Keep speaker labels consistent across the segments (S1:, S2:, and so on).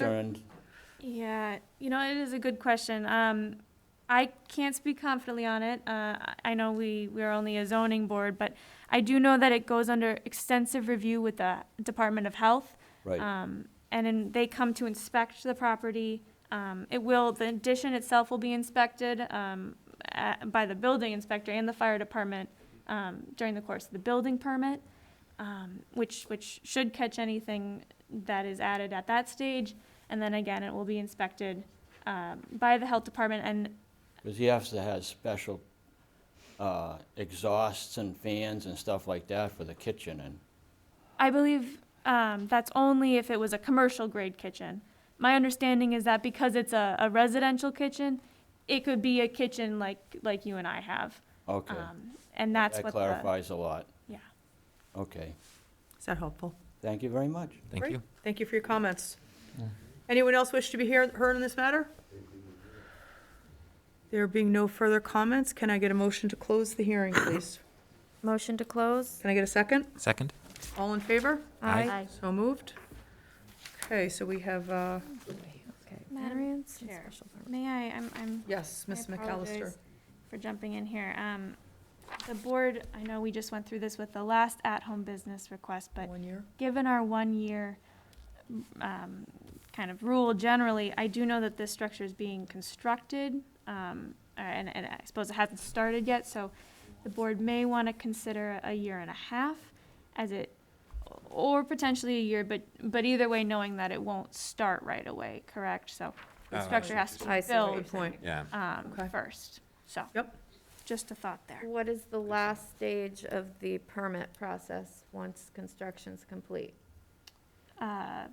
S1: concerned.
S2: Yeah, you know, it is a good question. Um, I can't speak confidently on it. Uh, I- I know we, we are only a zoning board, but I do know that it goes under extensive review with the Department of Health.
S1: Right,
S2: Um, and then they come to inspect the property. Um, it will, the addition itself will be inspected, um, a- by the building inspector and the fire department, um, during the course of the building permit, um, which, which should catch anything that is added at that stage. And then again, it will be inspected, um, by the health department and,
S1: because he has to have special uh, exhausts and fans and stuff like that for the kitchen and,
S2: I believe um, that's only if it was a commercial grade kitchen. My understanding is that because it's a, a residential kitchen, it could be a kitchen like like you and I have,
S1: okay.
S2: um, and that's
S1: That
S2: what the
S1: clarifies a lot.
S2: yeah.
S1: Okay,
S3: Is that helpful?
S1: thank you very much.
S4: Thank
S3: Great.
S4: you.
S3: Thank you for your comments. Anyone else wish to be hear- heard on this matter? There being no further comments, can I get a motion to close the hearing, please?
S5: Motion to close?
S3: Can I get a second?
S4: Second?
S3: All in favor?
S4: Aye.
S3: So moved. Okay, so we have, uh,
S2: Madam
S5: Chair.
S2: Chair, may I? I'm, I'm
S3: yes,
S2: I
S3: Ms. McAllister.
S2: apologize For jumping in here. Um, the board, I know we just went through this with the last at-home business request, but
S3: One year?
S2: given our one-year um, kind of rule generally, I do know that this structure is being constructed, um, uh, and, and I suppose it hasn't started yet, so the board may want to consider a year and a half as it, or potentially a year, but, but either way, knowing that it won't start right away, correct? So
S4: Oh,
S2: the
S4: I
S2: structure
S4: see.
S2: has to
S5: I
S2: be
S5: see what
S3: Good
S2: built
S3: point.
S4: Yeah.
S2: um,
S3: Okay.
S2: first, so.
S3: Yep.
S2: Just a thought there.
S5: What is the last stage of the permit process once construction's complete?
S2: Uh,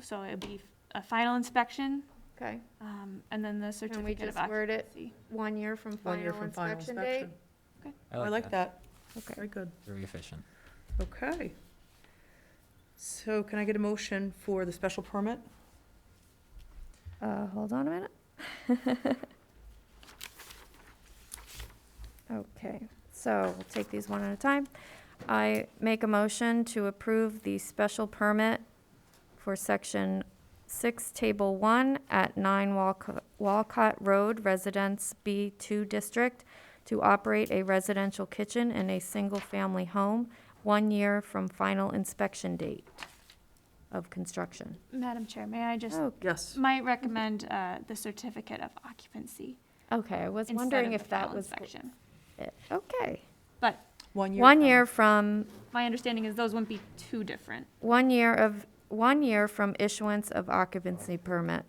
S2: So it'd be a final inspection,
S5: Okay,
S2: Um, and then the
S5: can we
S2: certificate of
S5: just word it
S2: occupancy.
S5: one year from
S3: One year
S5: final
S3: from final
S5: inspection date?
S3: inspection. I like that.
S5: Okay.
S3: Very good.
S4: Very efficient.
S3: Okay. So can I get a motion for the special permit?
S5: Uh, hold on a minute. Okay, so we'll take these one at a time. I make a motion to approve the special permit for section six, table one, at nine Walcott, Walcott Road, Residence B two District, to operate a residential kitchen in a single-family home, one year from final inspection date of construction.
S2: Madam Chair, may I just,
S5: Oh,
S3: Yes.
S2: might recommend uh, the certificate of occupancy
S5: Okay, I was
S2: instead
S5: wondering
S2: of the
S5: if that
S2: final
S5: was.
S2: inspection.
S5: it. Okay.
S2: But
S3: One year.
S5: One
S3: from-
S5: year from,
S2: my understanding is those wouldn't be too different.
S5: one year of, one year from issuance of occupancy permit.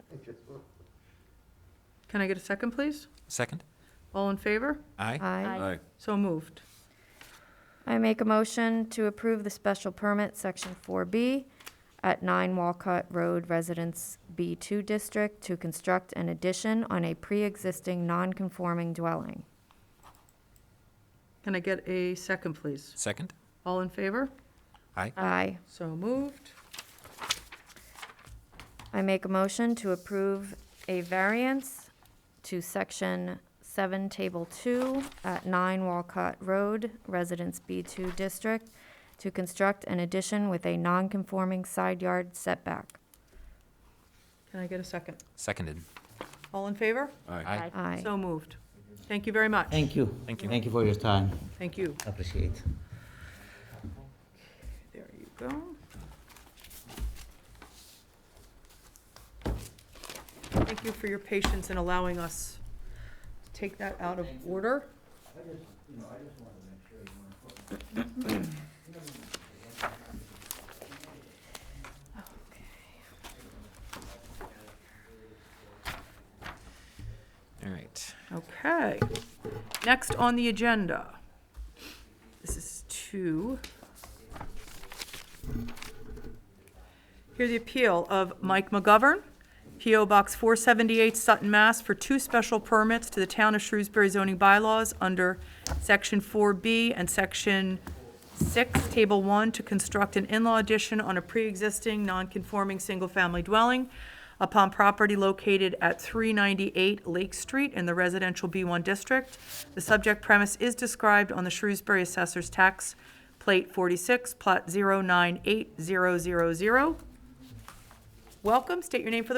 S3: Can I get a second, please?
S4: Second?
S3: All in favor?
S4: Aye.
S5: Aye.
S3: So moved.
S5: I make a motion to approve the special permit, section four B, at nine Walcott Road Residence B two District to construct an addition on a pre-existing non-conforming dwelling.
S3: Can I get a second, please?
S4: Second?
S3: All in favor?
S4: Aye.
S5: Aye.
S3: So moved.
S5: I make a motion to approve a variance to section seven, table two, at nine Walcott Road, Residence B two District, to construct an addition with a non-conforming side yard setback.
S3: Can I get a second?
S4: Seconded.
S3: All in favor?
S4: Aye.
S5: Aye.
S3: So moved. Thank you very much.
S6: Thank you.
S4: Thank you.
S6: Thank you for your time.
S3: Thank you.
S6: Appreciate.
S3: There you go. Thank you for your patience in allowing us to take that out of order.
S4: All right.
S3: Okay. Next on the agenda. This is two. Hear the appeal of Mike McGovern, PO Box 478 Sutton, Mass. for two special permits to the Town of Shrewsbury zoning bylaws under Section 4B and Section 6, Table 1, to construct an in-law addition on a pre-existing non-conforming single-family dwelling upon property located at 398 Lake Street in the residential B1 district. The subject premise is described on the Shrewsbury Assessor's Tax Plate 46, Plot 098000. Welcome, state your name for the